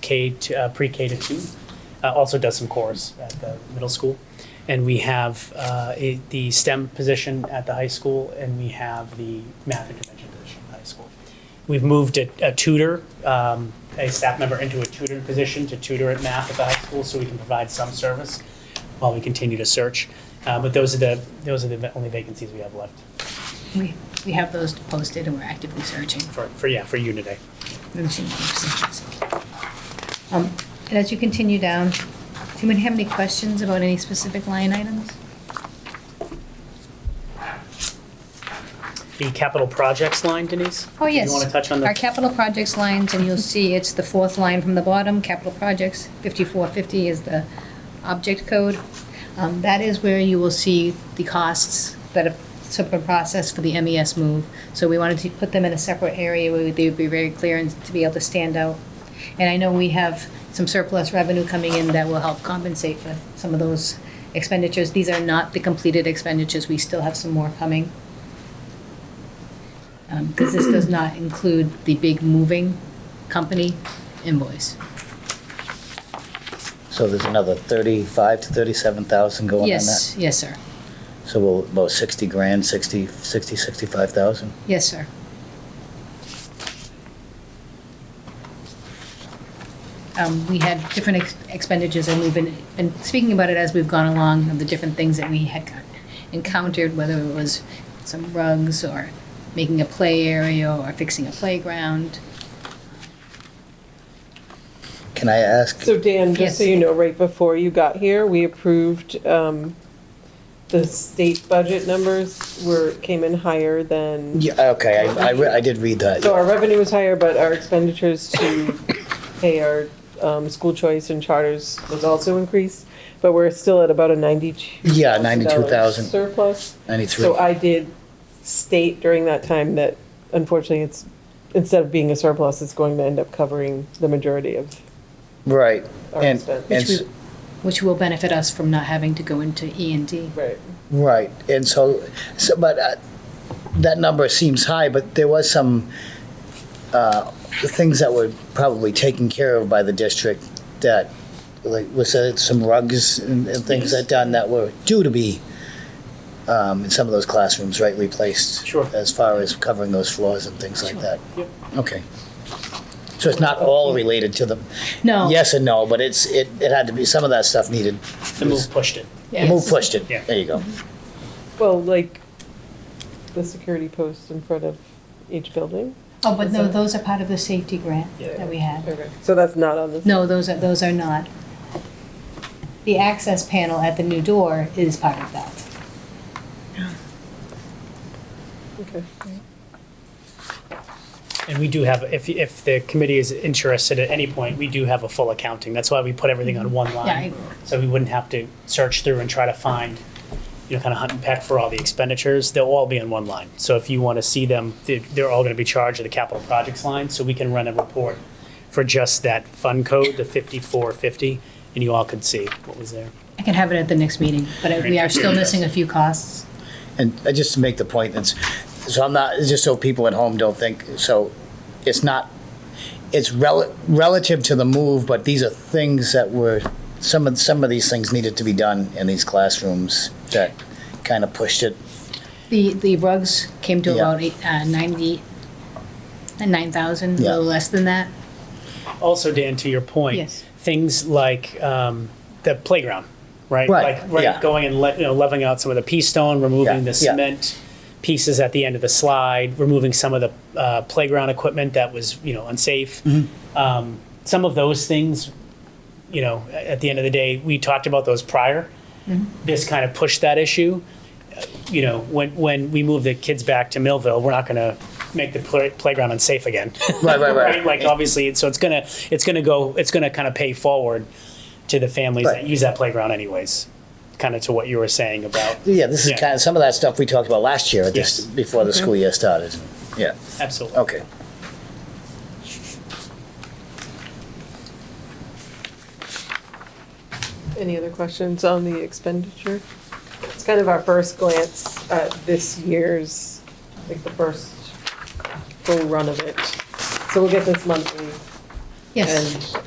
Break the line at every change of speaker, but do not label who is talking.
K to uh, pre-K to two. Uh, also does some chorus at the middle school, and we have uh, a, the STEM position at the high school, and we have the math intervention position at the high school. We've moved a, a tutor, um, a staff member, into a tutoring position to tutor at math at the high school, so we can provide some service while we continue to search. Uh, but those are the those are the only vacancies we have left
We, we have those posted and we're actively searching for
for, for yeah for Uniday.
routine positions. Um, And as you continue down, do you have any questions about any specific line items?
The capital projects line, Denise.
Oh, yes.
Do you want to touch on the
Our capital projects lines, and you'll see it's the fourth line from the bottom, capital projects, 5450 is the object code. Um, That is where you will see the costs that have sort of processed for the MES move. So we wanted to put them in a separate area where they would be very clear and to be able to stand out. And I know we have some surplus revenue coming in that will help compensate for some of those expenditures. These are not the completed expenditures, we still have some more coming because Um, this does not include the big moving company invoice.
So there's another 35 to 37,000 going on that?
Yes, yes, sir.
So we'll- about 60 grand, 60, 60, 65,000?
Yes, sir. Um, We had different ex- expenditures, and we've been, been speaking about it as we've gone along, of the different things that we had encountered, whether it was some rugs, or making a play area, or fixing a playground.
Can I ask,
So Dan, just so
Yes.
you know, right before you got here, we approved um, the state budget numbers were, came in higher than,
Yeah, okay, I- I, re- I did read that.
so our revenue was higher, but our expenditures to pay our um, school choice and charters was also increased, but we're still at about a ninety-two.
Yeah, 92,000.
Surplus.
93.
So I did state during that time that unfortunately it's, instead of being a surplus, it's going to end up covering the majority of
Right.
our
And,
expense.
and,
Which we-
s-
Which will benefit us from not having to go into E and D.
Right.
right, and so, so, but uh, that number seems high, but there was some uh, things that were probably taken care of by the district that, like, was there some rugs and and things that done that were due to be um, in some of those classrooms, right, replaced?
Sure.
As far as covering those floors and things like that?
Yep.
Okay. So it's not all related to the,
No.
yes and no, but it's, it, it had to be, some of that stuff needed
the move pushed it.
Yes.
Move pushed it.
Yeah.
There you go.
Well, like the security post in front of each building.
Oh, but no, those are part of the safety grant
Yeah.
that we had.
Okay. So that's not on this.
No, those are, those are not. The access panel at the new door is part of that.
Okay.
And we do have, if, if the committee is interested at any point, we do have a full accounting. That's why we put everything on one
Yeah, I-
line. So we wouldn't have to search through and try to find, you know, kind of hunt and peck for all the expenditures. They'll all be on one line. So if you want to see them, they're, they're all going to be charged to the capital projects line. So we can run a report for just that fund code, the 5450, and you all could see what was there.
I can have it at the next meeting, but we are still missing a few costs.
And uh, just to make the point, that's, so I'm not, just so people at home don't think, so it's not, it's rel- relative to the move, but these are things that were, some of, some of these things needed to be done in these classrooms that kind of pushed it.
The, the rugs came to
Yeah.
about eight- uh, 90, 9,000, a
Yeah.
little less than that.
also, Dan, to your point,
Yes.
things like um, the playground, right?
Right,
Like right,
yeah.
going and le- you know, leveling out some of the pea stone, removing
Yeah,
the
yeah.
cement pieces at the end of the slide, removing some of the uh, playground equipment that was you know unsafe.
Mm-hmm.
Um, some of those things, you know, a- at the end of the day, we talked about those prior. This kind of pushed that issue you know, when, when we move the kids back to Millville, we're not going to make the play, playground unsafe again.
Right, right, right.
Like obviously, it's- so it's gonna, it's gonna go, it's gonna kind of pay forward to the families that
Right.
use that playground anyways. Kind of to what you were saying about,
Yeah, this
Yeah.
is kind of, some of that stuff we talked about last year, at this,
Yes. Mm-hmm.
before the school year started. Yeah,
absolutely.
okay.
Any other questions on the expenditure? It's kind of our first glance at this year's, like the first full run of it. So we'll get this monthly.
Yes,
And